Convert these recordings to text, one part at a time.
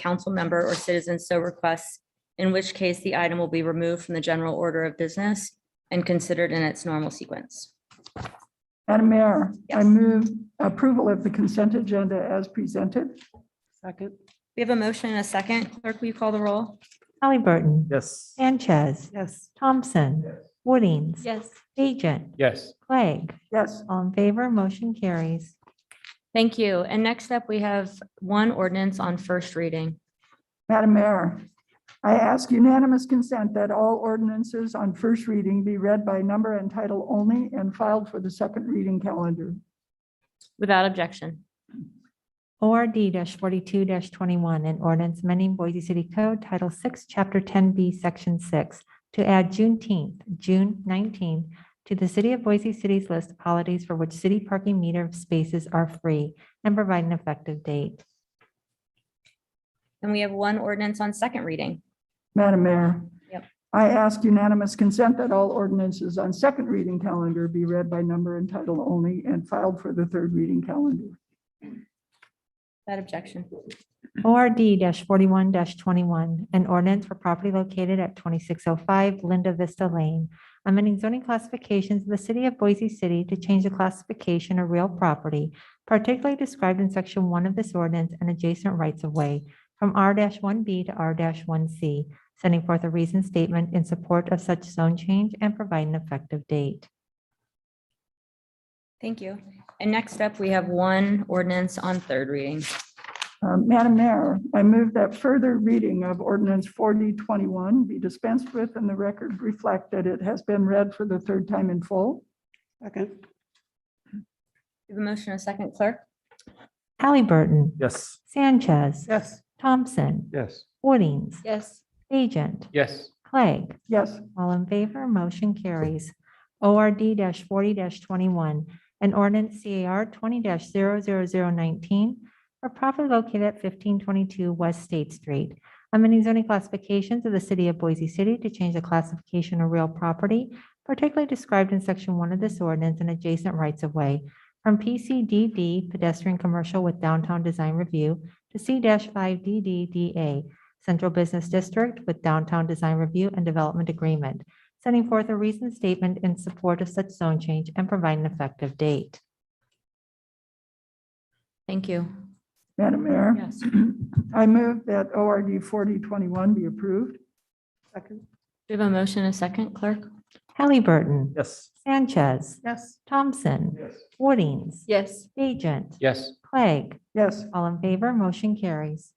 council member or citizen so requests, in which case the item will be removed from the general order of business and considered in its normal sequence. Madam Mayor, I Yes. move approval of the consent agenda as presented. Second. We have a motion and a second. Clerk, will you call the roll? Hallie Burton. Yes. Sanchez. Yes. Thompson. Woodings. Yes. Agent. Yes. Clegg. Yes, All in favor, motion carries. Thank you. And next up, we have one ordinance on first reading. Madam Mayor, I ask unanimous consent that all ordinances on first reading be read by number and title only and filed for the second reading calendar. Without objection. ORD forty-two twenty-one, an ordinance amending Boise City Code Title Six, Chapter ten B, Section six, to add Juneteenth, June nineteenth, to the City of Boise City's list of holidays for which city parking meter spaces are free and provide an effective date. And we have one ordinance on second reading. Madam Mayor. Yep. I ask unanimous consent that all ordinances on second reading calendar be read by number and title only and filed for the third reading calendar. Without objection. ORD forty-one twenty-one, an ordinance for property located at twenty-six oh five Linda Vista Lane, amending zoning classifications in the city of Boise City to change the classification of real property, particularly described in section one of this ordinance and adjacent rights of way from R one B to R one C, sending forth a reasoned statement in support of such zone change and provide an effective date. Thank you. And next up, we have one ordinance on third reading. Uh, Madam Mayor, I move that further reading of ordinance 4021 be dispensed with and the record reflect that it has been read for the third time in full. Second. We have a motion, and a second, clerk. Hallie Burton. Yes. Sanchez. Yes. Thompson. Yes. Woodings. Yes. Agent. Yes. Clegg. Yes, All in favor, motion carries. ORD forty twenty-one, an ordinance CAR twenty 19 for property located at fifteen twenty-two West State Street. Amending zoning classifications of the city of Boise City to change the classification of real property, particularly described in section one of this ordinance and adjacent rights of way from PCDD pedestrian commercial with downtown design review to C five DDDA Central Business District with Downtown Design Review and Development Agreement, sending forth a reasoned statement in support of such zone change and provide an effective date. Thank you. Madam Mayor. Yes. I move that ORD 4021 be approved. Second. We have a motion, and a second, clerk. Halliburton. Yes. Sanchez. Yes. Thompson. Yes. Woodings. Yes. Agent. Yes. Clegg. Yes, All in favor, motion carries.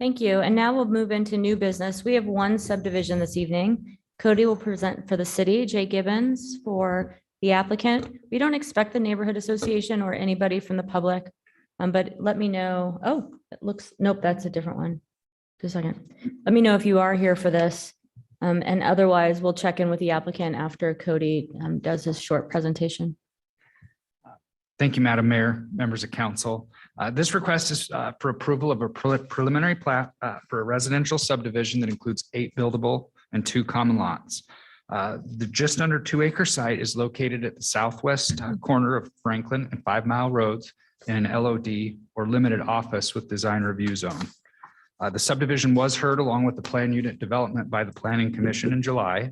Thank you. And now we'll move into new business. We have one subdivision this evening. Cody will present for the city, Jay Gibbons for the applicant. We don't expect the neighborhood association or anybody from the public. Um, but let me know, oh, it looks, nope, that's a different one. Just a second. Let me know if you are here for this. Um, and otherwise, we'll check in with the applicant after Cody um, does his short presentation. Thank you, Madam Mayor, members of council. Uh, This request is uh, for approval of a pre- preliminary plat uh, for a residential subdivision that includes eight buildable and two common lots. Uh, The just under two acre site is located at the southwest uh, corner of Franklin and Five Mile Roads in an LOD or limited office with design review zone. Uh, The subdivision was heard along with the plan unit development by the planning commission in July.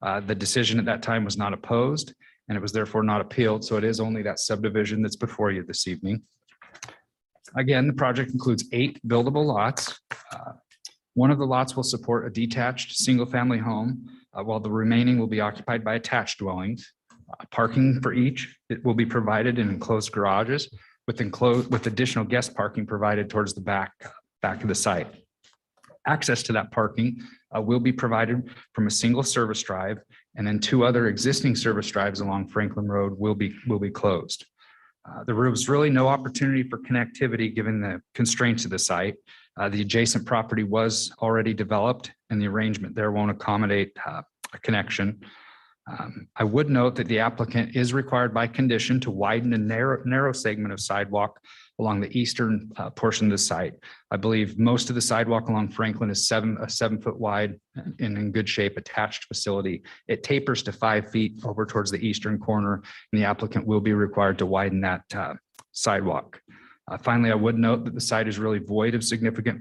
Uh, The decision at that time was not opposed and it was therefore not appealed. So it is only that subdivision that's before you this evening. Again, the project includes eight buildable lots. Uh, One of the lots will support a detached, single-family home, uh, while the remaining will be occupied by attached dwellings. Uh, Parking for each, it will be provided in enclosed garages with enclosed, with additional guest parking provided towards the back, back of the site. Access to that parking uh, will be provided from a single service drive and then two other existing service drives along Franklin Road will be, will be closed. Uh, There was really no opportunity for connectivity given the constraints of the site. Uh, The adjacent property was already developed and the arrangement there won't accommodate uh, a connection. Um, I would note that the applicant is required by condition to widen a narrow, narrow segment of sidewalk along the eastern uh, portion of the site. I believe most of the sidewalk along Franklin is seven, a seven foot wide and in good shape attached facility. It tapers to five feet over towards the eastern corner, and the applicant will be required to widen that uh, sidewalk. Uh, Finally, I would note that the site is really void of significant